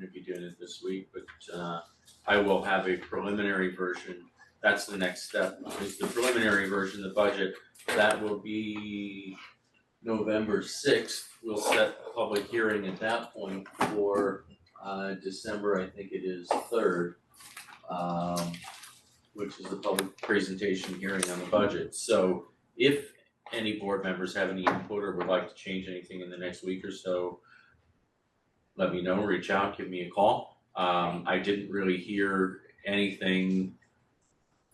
it this week, but uh I will have a preliminary version. That's the next step, is the preliminary version of the budget. That will be November sixth. We'll set the public hearing at that point for uh December, I think it is third. Um which is the public presentation hearing on the budget. So if any board members have any input or would like to change anything in the next week or so, let me know, reach out, give me a call. Um, I didn't really hear anything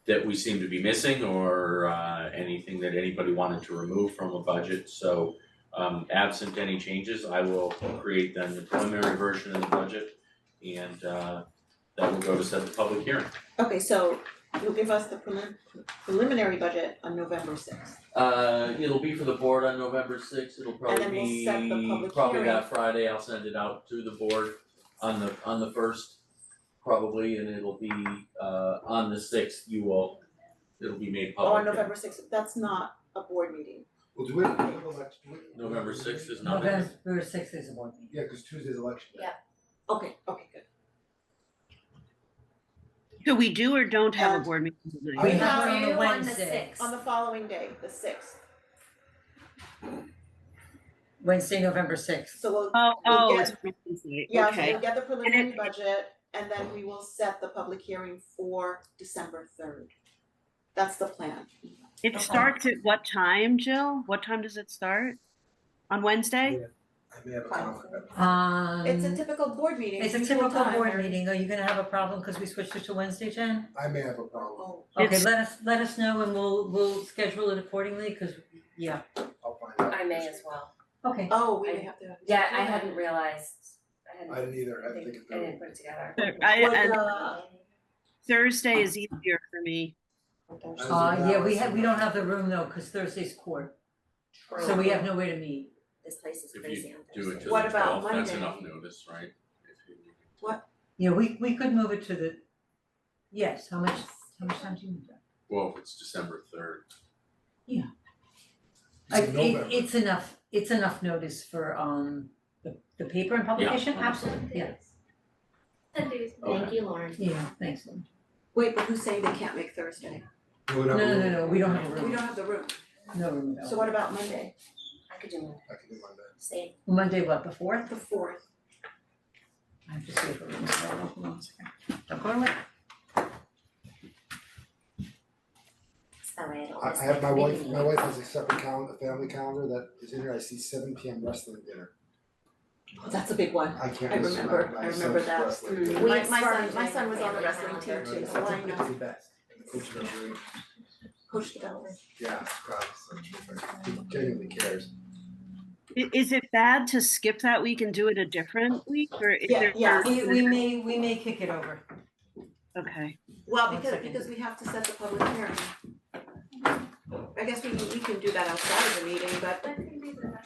that we seem to be missing or, uh, anything that anybody wanted to remove from a budget, so, um, absent any changes, I will create then the preliminary version of the budget and, uh, that will go to set the public hearing. Okay, so you'll give us the prelim- preliminary budget on November sixth. Uh, it'll be for the board on November sixth, it'll probably then we'll be, set the public probably hearing. that Friday, I'll send it out to the board on the, on the first, probably, and it'll be, uh, on the sixth, you will, it'll be made Oh, on public. November sixth, that's not a board meeting. Well, do we have an election? do we- November 6th is not- November November sixth is a board meeting. Yeah, cause Tuesday's election day. Okay, okay, good. So we do or don't have And- a board meeting We tonight? have one Are on you the on the Wednesday, sixth? On the following day, the sixth, Wednesday, November sixth. so we'll, Oh, oh, it's yeah, so okay. we'll get the preliminary it- budget and then we will set the public hearing for December third. That's the plan. It starts at what time, Jill? What time does it start? On Wednesday? I may have a conflict. Um, It's a typical board meeting, it's a usual typical time, board Mary. meeting. Are you gonna have a problem because we switched it to Wednesday, Jen? I may have a problem, Oh, Okay, It's- let us, let us know and we'll, we'll schedule it accordingly, because, yeah, I'll find out. I may as well. okay. oh, we may have to. Yeah, I hadn't realized, I hadn't, I I didn't either, I think think, it I through. didn't put it together. I- Would, and uh, Thursday is easier for me. I was Uh, in yeah, we Dallas have, we and- don't have the room though, because Thursday's court, so we have nowhere to meet. This place is If you crazy on Do it Thursday. to the What about twelfth, that's Monday? enough notice, right? If you- Yeah, we, we could move it to the, yes, how much, how much time do you need? Well, if it's December third, I, It's in November. it, it's enough, it's enough notice for, um, the, the paper and publication, absolutely, yeah, okay, you, Lauren. yeah, thanks. Lynn. Wait, but who's saying they can't make Thursday? We would have a No, no, no, room. no, we don't have a We room, don't have the room, no room at all. so what about Monday, I could do one, I can do Monday. same. Monday, what, the fourth? the fourth? I have to see if the room's available, hold on a second. Don't go away. It's that way I don't I, miss I have my it. wife, my wife has a separate calendar, a family calendar that is in here, I see seven P M wrestling dinner. Oh, that's a big one. I can't I miss my, remember- I my son's remember that. Mm, wrestling dinner. We My- had my son- started my doing son was on the family wrestling team calendar. too, It's so I know. the best. The coach knows really- Coach DeBella. yeah, it's probably so- he genuinely cares. I- Is it bad to skip that week and do it a different week or is Yeah, there? yeah, We, we may, we may kick it over. Okay, Well, One because, second. because we have to set the public hearing. I guess we, we can do that outside of the meeting, but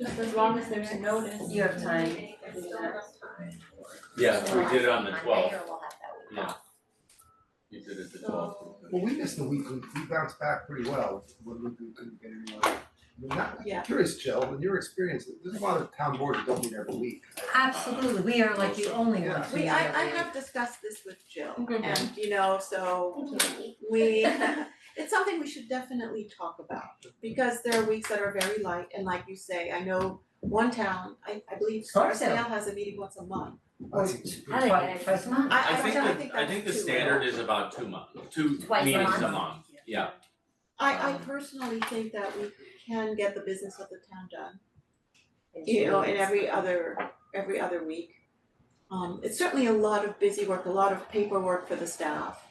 Just as long as there's notice. You have time. There's still enough time. yeah, we did it on the Monday, twelfth, or we'll have that week yeah. off. You did it the twelfth. Well, we missed the week, we we bounced back pretty well, when we we couldn't get anyone. I mean, not- Yeah. I'm curious, Jill, in your experience, there's a lot of town boards that don't meet every week. Absolutely, we are like the only Yeah. ones. who we, meet I, every I week. have discussed this with Jill Mhm. and, you know, so we, it's something we should definitely talk about. Because there are weeks that are very light and like you say, I know one town, I, I believe Scarsdale. Scarsdale has a meeting once a month. I see. I like Twice- it. twice a month. I, I think don't the, think I think the that's too standard low. is about two months, two Twice a meetings a month. month, yeah, I, I Um, personally think that we can get the business of the town done It's you know, really in nice. every other, every other week. Um, it's certainly a lot of busy work, a lot of paperwork for the staff.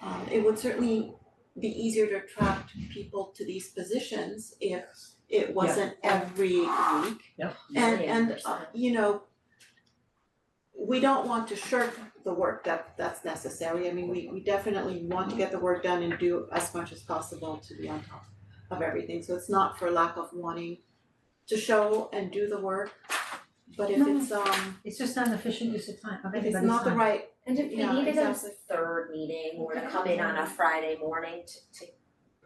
Um, it would certainly be easier to attract people to these positions if Yes. it wasn't every week. Yep. And Million and uh, percent. you know, we don't want to shirk the work that that's necessary. I mean, we we definitely want to get the work done and do as much as possible to be on top of everything. So it's not for lack of wanting to show and do the work, but if No. it's um, It's just not an efficient use of time, of if it's anybody's not the time. right, And if we Yeah, needed a exactly. third meeting or to come in on a Friday morning to to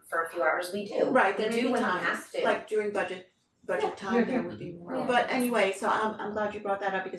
for a few hours, we do. right, there We may do be when we times, have to. like during budget budget time, there would be more. But anyway, so I'm I'm glad you brought that up because